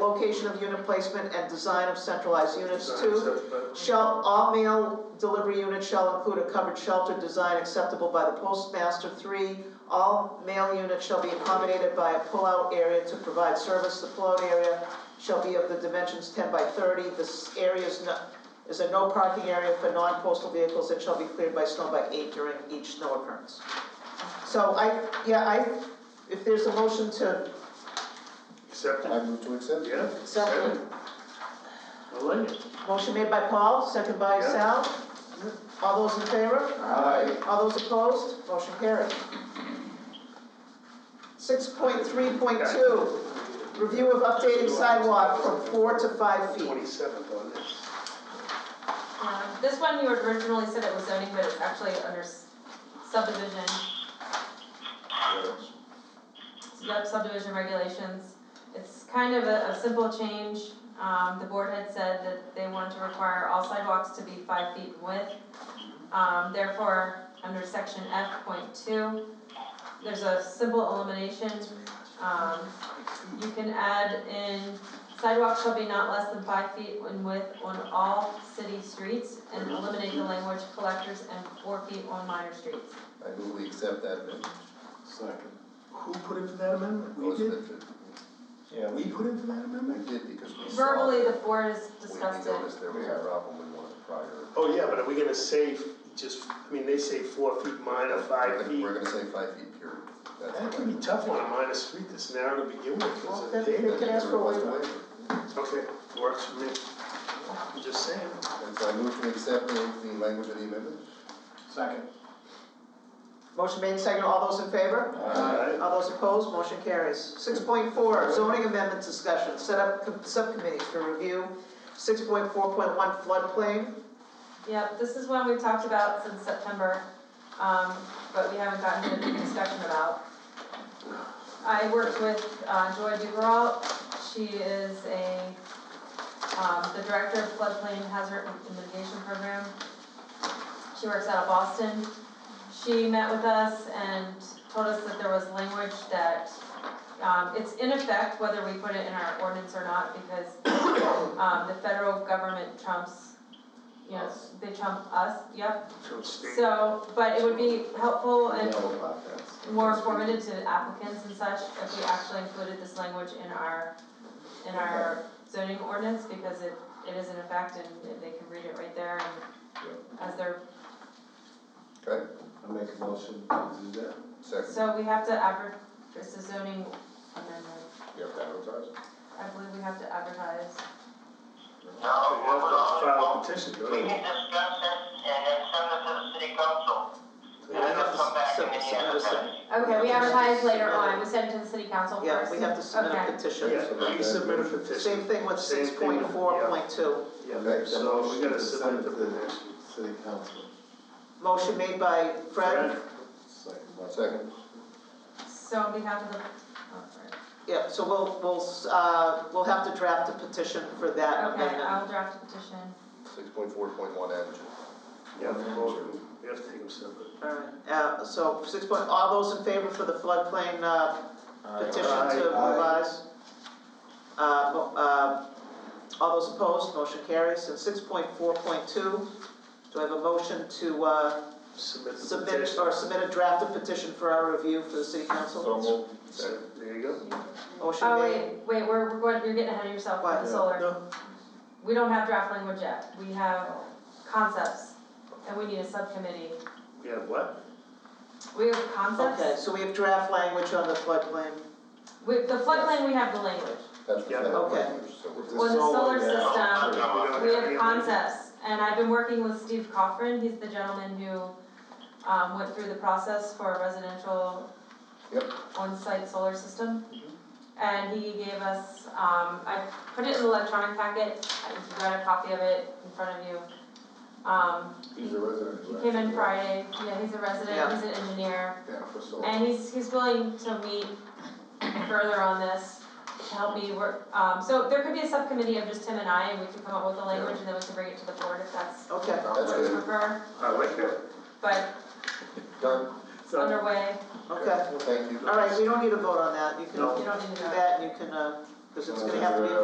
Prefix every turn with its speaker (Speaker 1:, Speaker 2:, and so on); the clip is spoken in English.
Speaker 1: location of unit placement and design of centralized units.
Speaker 2: Design
Speaker 1: Two,
Speaker 2: acceptable.
Speaker 1: shall, all mail delivery units shall include a covered shelter design acceptable by the postmaster. Three, all mail units shall be accommodated by a pullout area to provide service. The pullout area shall be of the dimensions ten by thirty. This area is no, is a no parking area for non-postal vehicles that shall be cleared by snow by eight during each snow occurrence. So I, yeah, I, if there's a motion to
Speaker 2: Accept it.
Speaker 3: I move to accept.
Speaker 2: yeah.
Speaker 1: Accept it.
Speaker 2: I like it.
Speaker 1: Motion made by Paul, second by
Speaker 2: Yeah.
Speaker 1: Sal. All those in favor?
Speaker 3: Aye.
Speaker 1: All those opposed? Motion carried. Six point three point two, review of updating sidewalk from four to five feet.
Speaker 2: Twenty-seventh on this.
Speaker 4: Um, This one, you originally said it was zoning, but it's actually under s- subdivision, yep, subdivision regulations. It's kind of a, a simple change, um, the board had said that they wanted to require all sidewalks to be five feet in width. Um, therefore, under section F point two, there's a simple elimination, um, you can add in sidewalks shall be not less than five feet in width on all city streets and eliminate the language collectors and four feet on minor streets.
Speaker 3: I move we accept that amendment.
Speaker 5: Second.
Speaker 2: Who put in for that amendment? We did?
Speaker 3: Elizabeth,
Speaker 5: Yeah,
Speaker 2: We put in for that
Speaker 3: We
Speaker 2: amendment?
Speaker 3: did because we saw.
Speaker 4: Verbally, the
Speaker 3: that
Speaker 4: board has
Speaker 3: we-
Speaker 4: discussed
Speaker 3: We
Speaker 4: it.
Speaker 3: noticed there was a problem with one of the prior.
Speaker 2: Oh, yeah, but are we gonna say f- just, I mean, they say four feet minor,
Speaker 3: We're
Speaker 2: five
Speaker 3: gonna-
Speaker 2: feet.
Speaker 3: We're gonna say five feet period. That's
Speaker 2: That
Speaker 3: what
Speaker 2: can
Speaker 3: I-
Speaker 2: be tough on a minor street this narrow to begin with,
Speaker 1: Well,
Speaker 2: is
Speaker 1: then-
Speaker 2: it data?
Speaker 1: They can ask for a waiver.
Speaker 2: Okay, works for me. I'm just saying.
Speaker 3: And so I move to accept the, the language of the amendment.
Speaker 5: Second.
Speaker 1: Motion made, second, all those in favor?
Speaker 2: Alright.
Speaker 1: All those opposed? Motion carries. Six point four, zoning amendment discussion, set up com- subcommittees for review. Six point four point one floodplain,
Speaker 4: Yep, this is one we've talked about since September, um, but we haven't gotten to the discussion about. I worked with, uh, Joy Duperalt, she is a, um, the director of floodplain hazard mitigation program. She works out of Boston. She met with us and told us that there was language that, um, it's in effect whether we put it in our ordinance or not, because, um, the federal government trumps, you know, they trump us, yep.
Speaker 2: From state.
Speaker 4: So, but it would be helpful and
Speaker 3: No podcast.
Speaker 4: more informative to applicants and such if we actually included this language in our, in our zoning ordinance, because it, it is in effect and they can read it right there and as they're,
Speaker 3: Okay,
Speaker 5: I make a motion to do that.
Speaker 3: second,
Speaker 4: so we have to advert, it's a zoning amendment,
Speaker 3: you have to advertise.
Speaker 4: I believe we have to advertise.
Speaker 6: No,
Speaker 2: You
Speaker 6: we're
Speaker 2: have to file a
Speaker 6: gonna,
Speaker 2: petition,
Speaker 6: we
Speaker 2: don't you?
Speaker 6: can discuss it and then send it to the city council. And then they'll come back and then you have to. send it.
Speaker 4: Okay, we advertise later on, we send it to the city council first.
Speaker 1: yeah, we have to submit
Speaker 4: Okay.
Speaker 1: a petition.
Speaker 2: Yeah, we submit a
Speaker 1: Same
Speaker 2: petition.
Speaker 1: thing with
Speaker 2: Same
Speaker 1: six
Speaker 2: thing with-
Speaker 1: point four point two.
Speaker 2: Yeah, so we gotta submit
Speaker 5: Send
Speaker 2: the
Speaker 5: it to
Speaker 2: petition.
Speaker 5: the city council.
Speaker 1: Motion made by Fred,
Speaker 5: Second.
Speaker 3: Second,
Speaker 4: So on behalf of the, oh, sorry.
Speaker 1: yeah, so we'll, we'll, uh, we'll have to draft a petition for that
Speaker 4: okay,
Speaker 1: amendment.
Speaker 4: I'll draft a petition.
Speaker 3: six point four point one added.
Speaker 2: Yeah, we have to take them separate.
Speaker 1: Alright, uh, so six point, all those in favor for the floodplain, uh, petition
Speaker 2: Aye.
Speaker 1: to revise? Uh, mo- uh, all those opposed, motion carries, and six point four point two, do I have a motion to, uh,
Speaker 2: Submit the
Speaker 1: submit,
Speaker 2: petition.
Speaker 1: or submit a draft of petition for our review for the city council?
Speaker 2: So, There you go.
Speaker 1: Motion
Speaker 4: Oh,
Speaker 1: made,
Speaker 4: wait, wait, we're, we're going, you're getting ahead of yourself
Speaker 1: What?
Speaker 4: with the solar.
Speaker 2: No,
Speaker 4: We don't have draft language yet, we have concepts, and we need a subcommittee.
Speaker 2: we have what?
Speaker 4: We have
Speaker 1: okay,
Speaker 4: concepts,
Speaker 1: so we have draft language on the floodplain,
Speaker 4: with the floodplain, we have the language.
Speaker 3: That's
Speaker 2: Yeah,
Speaker 3: the
Speaker 1: okay.
Speaker 3: language, so we're.
Speaker 4: Well, the solar
Speaker 2: We
Speaker 4: system,
Speaker 6: uh,
Speaker 2: don't
Speaker 4: we
Speaker 2: have any
Speaker 4: have concepts, and I've been working with Steve Cochran, he's the gentleman who, um, went through the process for a residential
Speaker 3: Yep.
Speaker 4: on-site solar system.
Speaker 2: Mhm.
Speaker 4: And he gave us, um, I put it in the electronic packet, I've got a copy of it in front of you. Um,
Speaker 5: He's a resident.
Speaker 4: He came in Friday, yeah, he's a resident, he's an engineer,
Speaker 5: Yeah, for so.
Speaker 4: and he's, he's willing to meet further on this to help me work, um, so there could be a subcommittee of just him and I, and we could come up with the language, and then we can bring it to the board if that's
Speaker 1: okay.
Speaker 3: That's
Speaker 4: what you
Speaker 3: good,
Speaker 4: prefer,
Speaker 2: I like that.
Speaker 4: but
Speaker 3: done,
Speaker 4: it's
Speaker 2: So,
Speaker 4: underway,
Speaker 1: Okay,
Speaker 3: thank you.
Speaker 1: all right, we don't need a vote on that, you can,
Speaker 2: No.
Speaker 1: you
Speaker 4: you
Speaker 1: don't
Speaker 4: don't need
Speaker 1: do
Speaker 4: to know.
Speaker 1: that, and you can, uh, cause it's gonna have to be a